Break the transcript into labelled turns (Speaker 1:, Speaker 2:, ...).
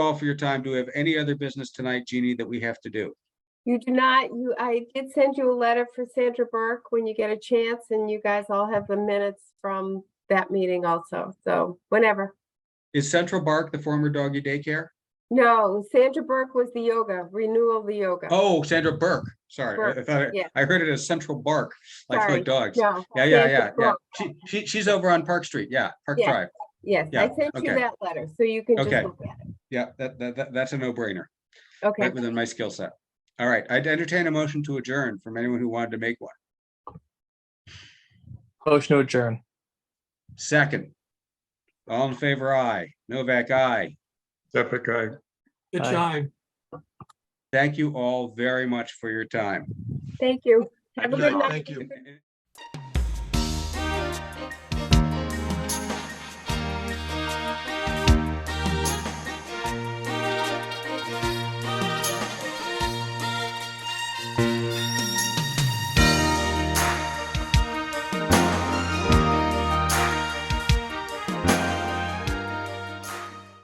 Speaker 1: all for your time. Do we have any other business tonight, Jeannie, that we have to do?
Speaker 2: You do not, you, I did send you a letter for Sandra Burke when you get a chance and you guys all have the minutes from that meeting also, so whenever.
Speaker 1: Is Central Bark the former doggy daycare?
Speaker 2: No, Sandra Burke was the yoga, renewal of the yoga.
Speaker 1: Oh, Sandra Burke, sorry. I
Speaker 2: Burke,
Speaker 1: thought,
Speaker 2: yeah.
Speaker 1: I heard it as Central Bark, like
Speaker 2: Sorry,
Speaker 1: for dogs.
Speaker 2: No.
Speaker 1: Yeah, yeah,
Speaker 2: Sandra
Speaker 1: yeah, yeah.
Speaker 2: Burke,
Speaker 1: She, she, she's over on Park Street, yeah, Park
Speaker 2: Yeah.
Speaker 1: Drive.
Speaker 2: Yes,
Speaker 1: yeah,
Speaker 2: I sent you
Speaker 1: okay.
Speaker 2: that letter, so you can just
Speaker 1: Okay.
Speaker 2: look at
Speaker 1: Yeah, that, that, that- that's a no-brainer,
Speaker 2: it. Okay,
Speaker 1: right within my skill set. All right, I'd entertain a motion to adjourn from anyone who wanted to make one.
Speaker 3: Motion to adjourn.
Speaker 1: Second. All in favor, aye. Novak, aye.
Speaker 4: Epic guy.
Speaker 5: Good
Speaker 3: Aye.
Speaker 5: job.
Speaker 1: Thank you all very much for your time.
Speaker 2: thank you.
Speaker 5: Thank
Speaker 2: Have a
Speaker 5: you.
Speaker 2: good night.
Speaker 5: Thank you.